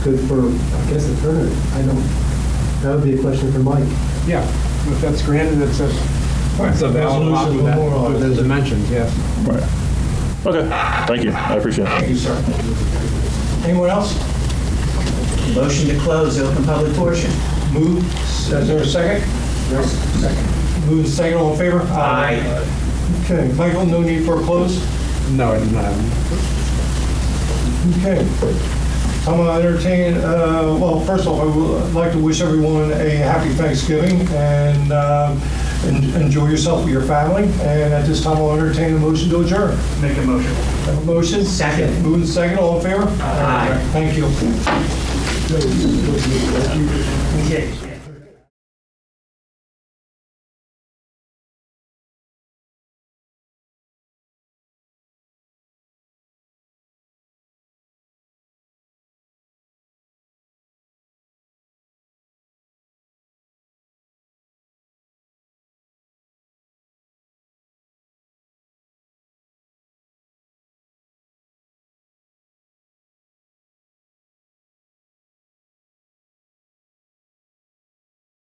good for, I guess, a tournament. I don't, that would be a question for Mike. Yeah, if that's granted, it's a, it's a valid lot Resolution with overall. that, with those dimensions, yes. Right. Okay, thank you, I appreciate it. Thank you, sir. Anyone else? Motion to close the open public portion. Move. Is there a second? Second. Move the second, all in favor? Aye. Okay, Michael, no need for a close? No, I did not. Okay. I'm gonna entertain, uh, well, first off, I would like to wish everyone a happy Thanksgiving and um, en- enjoy yourself with your family. And at this time, I'll entertain a motion to adjourn. Make a motion. Have a motion? Second. Move the second, all in favor? Aye. Thank you. Okay.